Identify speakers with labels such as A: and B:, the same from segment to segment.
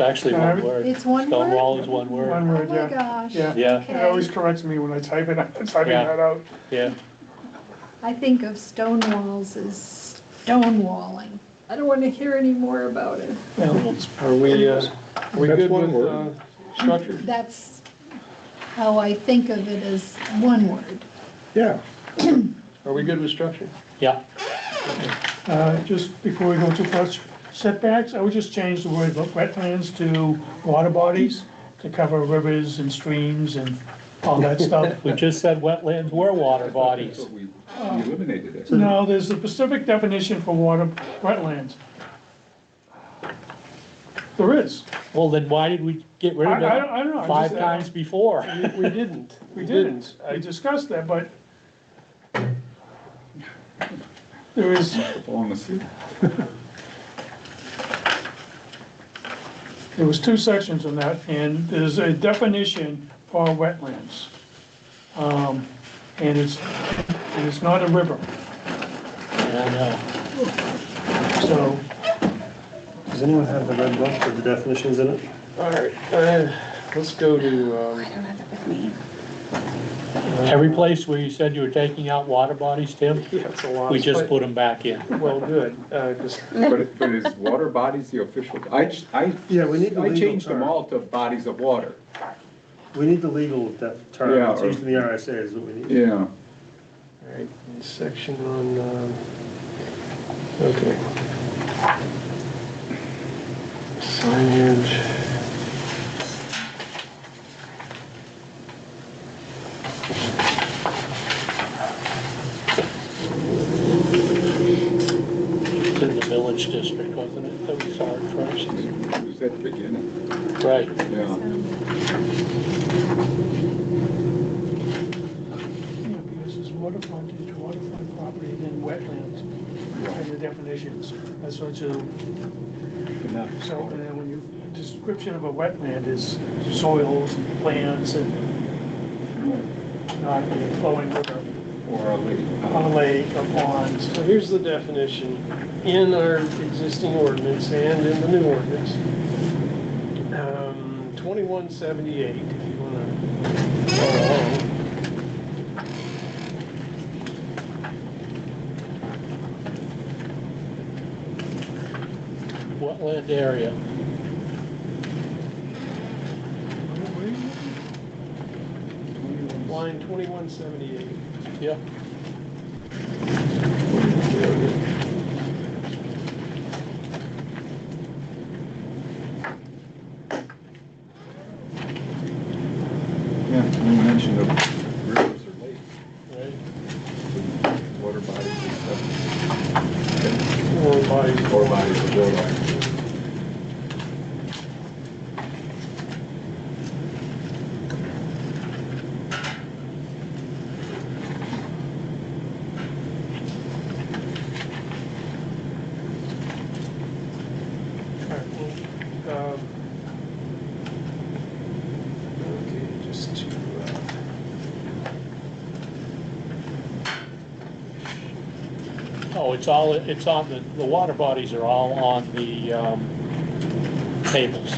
A: actually one
B: Uh,
A: word.
C: It's one word?
A: Stonewall is one
B: One
A: word,
C: Oh
B: word,
C: my
B: yeah,
C: gosh.
B: yeah.
A: Yeah.
B: It always
C: Okay,
B: corrects me when I type it, I'm typing
A: Yeah.
B: that out.
A: yeah.
C: I think of stone walls as stonewalling. I don't want to hear any more about it.
D: Are we, uh, are we
E: That's
D: good
E: one
D: with, uh,
E: word.
D: structure?
C: That's how I think of it as one word.
E: Yeah,
D: Are we good with structure?
A: Yeah,
B: Uh, just before we go too far, setbacks, I would just change the word wetlands to water bodies to cover rivers and streams and all that stuff.
A: we just said wetlands were water bodies.
E: we
F: Oh.
E: eliminated it.
B: No, there's a specific definition for water, wetlands. There is.
A: Well, then why did we get rid of
B: I- I don't- I don't know, I
A: it five
B: just- uh,
A: times before?
D: We didn't.
B: We didn't, I discussed that, but there is,
E: Honestly.
B: there was two sections on that, and there's a definition for wetlands. Um, And it's, and it's not a river,
A: I know.
B: so
F: Does anyone have the red book with the definitions in it?
D: All right, uh, let's go to, um,
A: Every place where you said you were taking out water bodies, Tim,
D: yeah, it's a lot.
A: we just
D: but-
A: put them back in.
D: Well, good, uh, 'cause-
E: But, but is water bodies the official, I, ch- I,
F: Yeah, we need the
E: I
F: legal
E: changed them
F: term.
E: all to bodies of water.
F: We need the legal de- term,
E: Yeah,
F: it's
E: or-
F: used in the RSA is what we need.
E: Yeah.
D: all right, section on, um, okay. Signage.
A: It's in the village district, wasn't it, that we saw it first?
E: It was at the beginning,
A: Right,
E: yeah.
B: Yeah, because it's water frontage, waterfront property, then wetlands, and the definitions, that's what you. So, and then when you, description of a wetland is soils and plants and not a flowing river,
E: Or a lady.
B: a lake, a pond.
D: So here's the definition in our existing ordinance and in the new ordinance. Um, 2178, if you want to follow along.
A: wetland area.
F: Uh,
D: Line 2178.
A: Yeah,
E: Yeah, you mentioned the rivers or lakes,
A: right.
E: water bodies and stuff.
D: Or bodies.
E: Or bodies of water.
D: All right, well, um, Okay, just to. uh,
A: Oh, it's all, it's on, the, the water bodies are all on the, um, tables.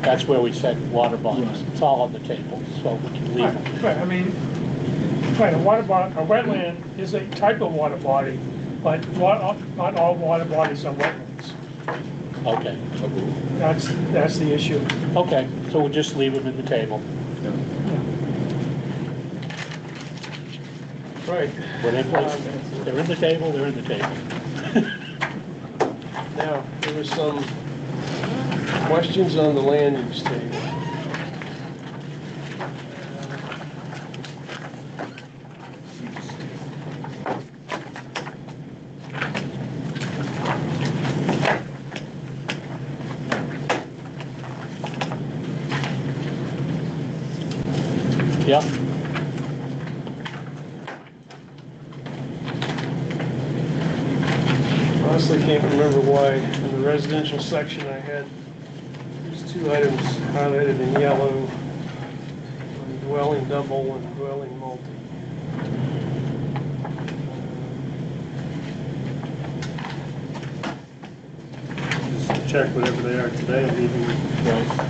A: That's where we set water bodies. It's all on the tables, so we can leave them.
B: Right, right, I mean, right, a water body, a wetland is a type of water body, but not, not all water bodies are wetlands.
A: Okay,
B: That's, that's the issue.
A: okay, so we'll just leave them in the table.
D: Right,
A: When they place, they're in the table, they're in the table.
D: now, there was some questions on the land use table.
A: Yep.
D: Honestly, can't remember why in the residential section I had these two items highlighted in yellow. Dwelling double and dwelling multi.
F: Just
D: check whatever they are today and even